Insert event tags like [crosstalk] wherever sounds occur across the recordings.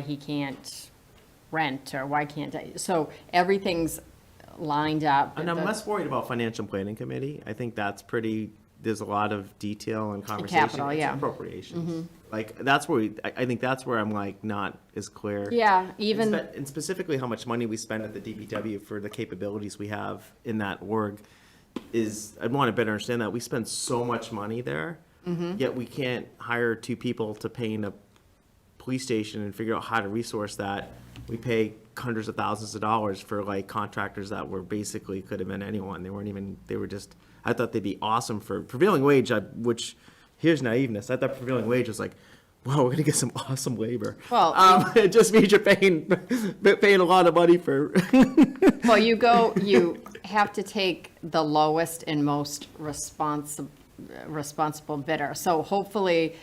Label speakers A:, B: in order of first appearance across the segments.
A: he can't rent or why can't I? So everything's lined up.
B: And I'm
A: The-
B: less worried about financial planning committee. I think that's pretty, there's a lot of detail and conversation.
A: capital,
B: It's
A: yeah. Mm-hmm.
B: Appropriations. Like, that's where, we- I, I think that's where I'm like not as clear.
A: Yeah,
B: And
A: even,
B: spe- And specifically how much money we spend at the DPW for the capabilities we have in that org is, I want to better understand that. We spend so much money there.
A: Mm-hmm.
B: Yet we can't hire two people to paint a police station and figure out how to resource that. We pay hundreds of thousands of dollars for like contractors that were basically, could have been anyone. They weren't even, they were just, I thought they'd be awesome for prevailing wage, I- which, here's naiveness. I thought prevailing wage was like, wow, we're gonna get some [laughs] awesome labor.
A: Well,
B: Um, [laughs] it just means you're paying, [laughs] paying a lot of money for,
A: well, you
B: [laughs]
A: go, you have to take the lowest and most responsible, responsible bidder. So hopefully,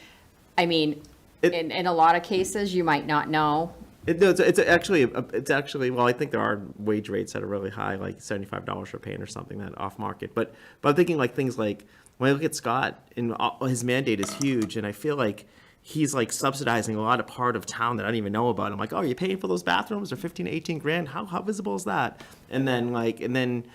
A: I mean,
B: It-
A: in, in a lot of cases, you might not know.
B: It, no, it's, it's actually, uh, it's actually, well, I think there are wage rates that are really high, like seventy-five dollars for paint or something that off market. But, but I'm thinking like things like, when I look at Scott and all- his mandate is huge and I feel like he's like subsidizing a lot of part of town that I don't even know about. I'm like, oh, you're paying for those bathrooms? They're fifteen to eighteen grand? How, how visible is that? And then like, and then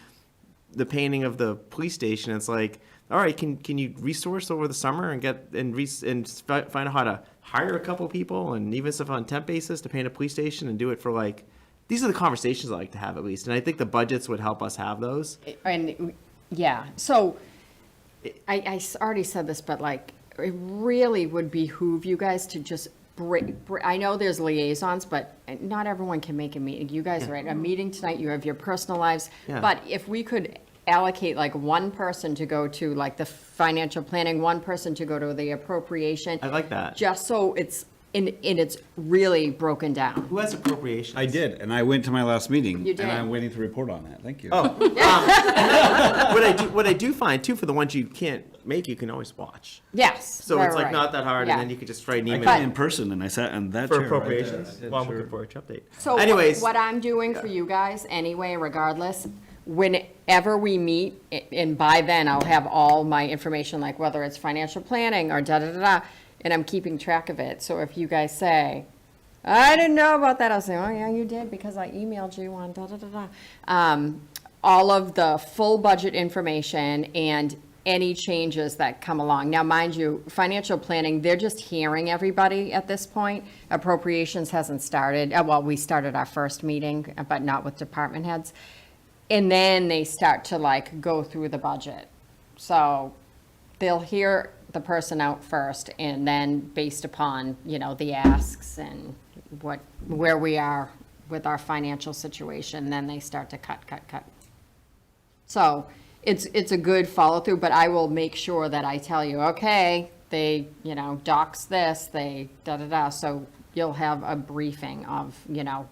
B: the painting of the police station. It's like, all right, can can you resource over the summer and get and re- and fi- find out how to hire a couple people and even stuff on temp basis to paint a police station and do it for like. These are the conversations I like to have at least, and I think the budgets would help us have those.
A: And, yeah, so I, I s- already said this, but like, it really would behoove you guys to just break, I know there's liaisons, but eh, not everyone can make a meeting. You guys are at a meeting tonight, you have your personal lives.
B: Yeah.
A: But if we could allocate like one person to go to like the financial planning, one person to go to the appropriation.
B: I like that.
A: Just so it's, in and it's really broken down.
B: Who has appropriations?
C: I did, and I went to my last meeting.
A: You
C: And
A: did.
C: I'm waiting to report on that, thank you.
D: Oh,
B: what I do, what I do find too for the ones you can't make, you can always watch.
A: Yes.
B: So
A: right,
B: it's
A: right,
B: like not that hard,
A: Yeah.
B: and then you could just write an
C: I
B: email
C: came in person and I sat on that chair
B: for
C: right there.
B: appropriations. Well, I'm looking for a update.
A: So what-
B: anyways,
A: what I'm doing for you guys anyway, regardless, whenever we meet, a- and by then I'll have all my information, like whether it's financial planning or da-da-da-da, and I'm keeping track of it. So if you guys say, I didn't know about that, I'll say, oh, yeah, you did because I emailed you on da-da-da-da. Um, all of the full budget information and any changes that come along. Now, mind you, financial planning, they're just hearing everybody at this point. Appropriations hasn't started, uh, well, we started our first meeting, uh, but not with department heads. And then they start to like go through the budget. So they'll hear the person out first and then based upon, you know, the asks and what, where we are with our financial situation, then they start to cut, cut, cut. So it's, it's a good follow through, but I will make sure that I tell you, okay, they, you know, docs this, they da da da. So you'll have a briefing of, you know,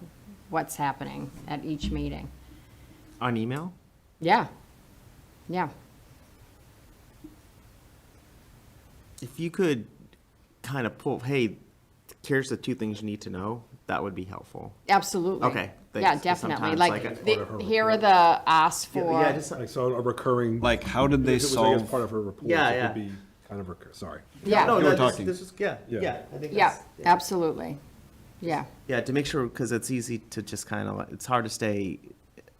A: what's happening at each meeting.
B: on email.
A: Yeah. Yeah.
B: If you could kind of pull, hey, here's the two things you need to know, that would be helpful.
A: Absolutely.
B: Okay,
A: Yeah,
B: thanks, 'cause
A: definitely.
B: sometimes,
A: Like,
B: like,
A: the- here are the asks for.
B: Yeah, just,
D: Like, so a recurring.
C: Like, how did they
D: If it was, I guess,
C: solve-
D: Part of her report.
B: Yeah,
D: it
B: yeah.
D: would be Kind of recur, sorry.
A: Yeah.
B: no,
C: You were
B: no, this,
C: talking.
B: this is, yeah,
D: Yeah.
B: yeah, I think
A: Yeah,
B: that's.
A: absolutely. Yeah.
B: Yeah, to make sure, because it's easy to just kind of, it's hard to stay,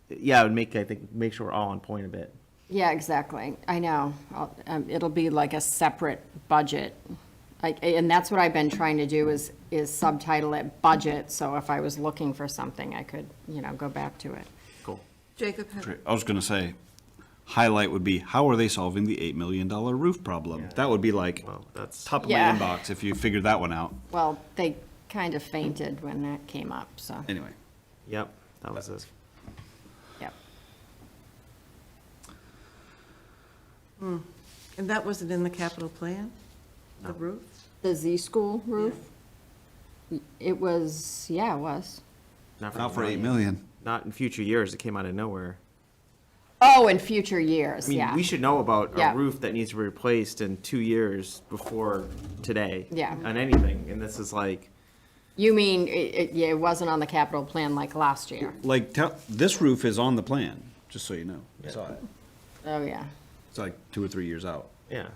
B: yeah, it would make, I think, make sure we're all on point a bit.
A: Yeah, exactly. I know. I'll- um, It'll be like a separate budget. Like, and that's what I've been trying to do is, is subtitle it budget. So if I was looking for something, I could, you know, go back to it.
B: Cool.
E: Jacob, had-
C: I was gonna say, highlight would be, how are they solving the eight million dollar roof problem? That would be like,
B: Well, that's,
C: top of my
A: Yeah.
C: inbox if you figured that one out,
A: Well, they kind of fainted when that came up, so,
C: anyway.
B: yep, that was it.
A: yep.
E: and that wasn't in the capital plan, the roof?
A: The Z School roof? It was, yeah, it was.
C: Not for eight million.
B: Not in future years, it came out of nowhere.
A: Oh, in future years,
B: I mean,
A: yeah.
B: we should know about
A: Yeah.
B: a roof that needs to be replaced in two years before today.
A: Yeah.
B: On anything, and this is like,
A: You mean, it, it, yeah, it wasn't on the capital plan like last year?
C: Like, tell, this roof is on the plan, just so you know. I saw it.
A: Oh, yeah.
C: It's like two or three years out.
B: yeah.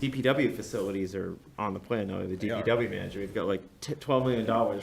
B: DPW facilities are on the plan, though, the
D: are.
B: DPW manager, we've got like t- twelve million dollars